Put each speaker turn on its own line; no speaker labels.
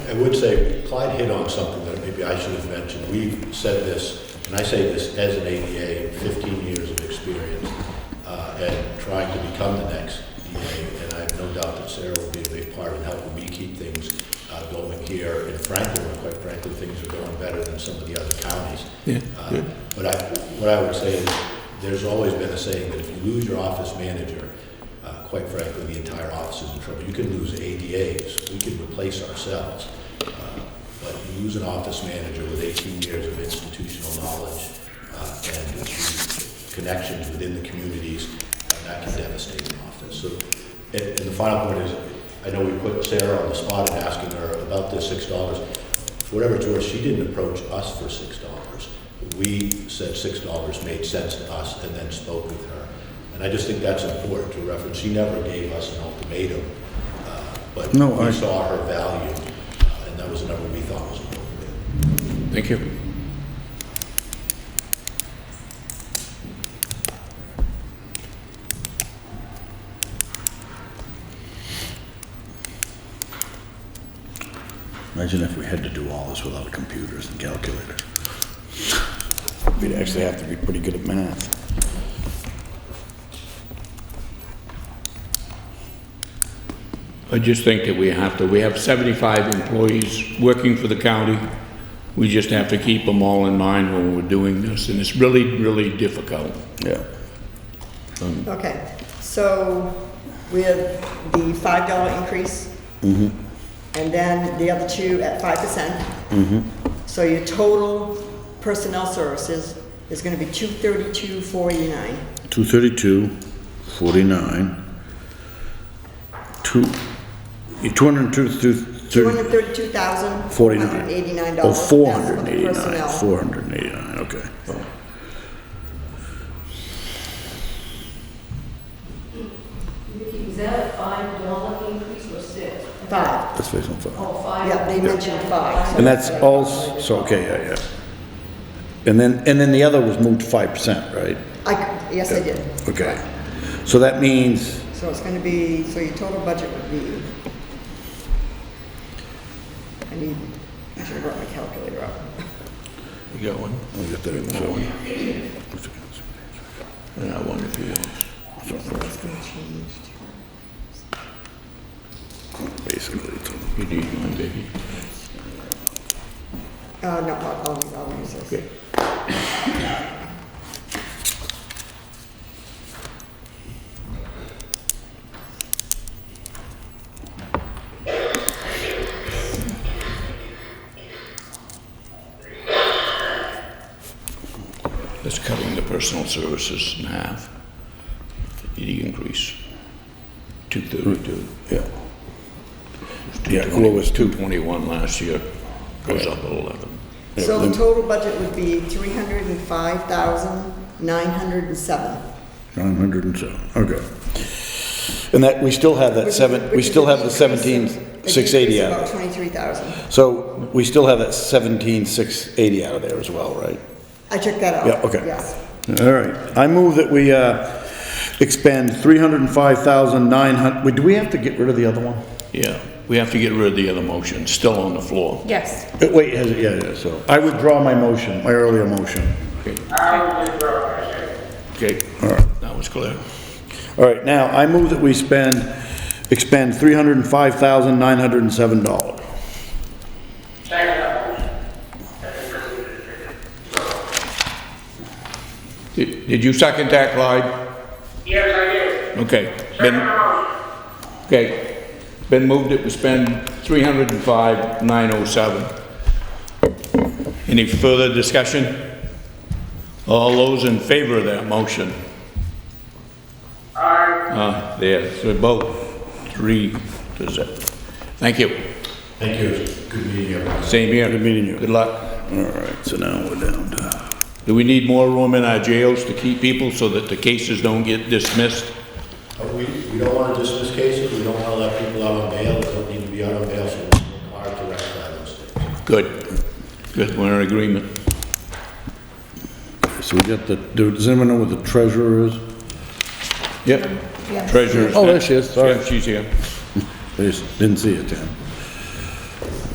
I would say Clyde hit on something that maybe I should have mentioned. We've said this, and I say this as an ADA, 15 years of experience uh, at trying to become the next DA, and I have no doubt that Sarah will be a big part in helping me keep things uh, going here in Franklin. and Quite frankly, things are going better than some of the other counties.
Yeah,
Uh,
yeah.
But I, what I would say is, there's always been a saying that if you lose your office manager, uh, quite frankly, the entire office is in trouble. You can lose ADAs, we can replace ourselves. Uh, But you lose an office manager with 18 years of institutional knowledge uh, and the connections within the communities, uh, that can devastate an office. So, and and the final point is, I know we put Sarah on the spot in asking her about this $6 for whatever it's worth, she didn't approach us for six dollars. We said six dollars made sense to us and then spoke with her. And I just think that's important to reference. She never gave us an ultimatum, uh, but
No,
we
I-
saw her value, uh, and that was a number we thought was appropriate.
Thank you.
Imagine if we had to do all this without computers and calculators. We'd actually have to be pretty good at math.
I just think that we have to, we have 75 employees working for the county. We just have to keep them all in mind when we're doing this, and it's really, really difficult.
Yeah.
Okay, so with the five dollar increase. And then the other two at five percent. So your total personnel services is gonna be two thirty-two, forty-nine.
232, 49, 2, 202,
Two hundred thirty-two thousand.
49.
Eighty-nine
Oh,
dollars.
489, 489, okay.
Is that a five dollar increase or six?
Five,
Let's face it, five.
Oh, five.
yeah, they mentioned five. so-
And that's all, s- so, okay, yeah, yeah. And then, and then the other was moved to 5%, right?
I, yes, I did.
Okay. So that means
So it's gonna be, so your total budget would be. I need, I should have brought my calculator up.
You got one?
I'll get that in the phone.
And I wonder if you want.
It's gonna change to-
Basically, it's on-
You need one, baby.
Uh, no, I'll, I'll- I'll use this.
Okay. That's cutting the personal services in half. The increase, 232.
yeah. Yeah, well, it
It
was
was
two-
221 last year, goes up 11.
So the total budget would be three hundred and five thousand, nine hundred and seven.
Nine hundred and seven, okay. And that, we still have that
Which-
seven, we
which is
still
a
have the
decrease of-
seventeen, six eighty
a
out of
decrease of About
it.
twenty-three thousand.
So we still have that seventeen, six eighty out of there as well, right?
I checked that out.
Yeah, okay.
Yes.
All right, I move that we, uh, expend three hundred and five thousand nine hun, do we have to get rid of the other one?
Yeah, we have to get rid of the other motion, still on the floor.
Yes.
Uh, Wait, has it, yeah, yeah, so, I withdraw my motion, my earlier motion.
Okay, that was clear.
All right, now, I move that we spend, expend three hundred and five thousand nine hundred and seven dollars.
Did did you second that, Clyde?
Yes, I
Okay.
do. Second
Been,
motion.
okay, been moved that we spend three hundred and five nine oh seven. Any further discussion? All those in favor of that motion?
Aye.
Uh, there, so both, three to zip. Thank you.
Thank you, It was good meeting everyone.
Same here.
Good meeting you.
Good luck.
All right, so now we're down to,
Do we need more room in our jails to keep people so that the cases don't get dismissed?
Uh, We, we don't want to dismiss cases, we don't want to let people out on bail, they don't need to be out on bail, so we're hard to rectify those things.
Good, good, we're in agreement.
so we got the, do- does anyone know what the treasurer is?
Yep. Treasurer's.
Oh, there
next.
she is, sorry.
Yeah, she's here.
They just didn't see it, Tim.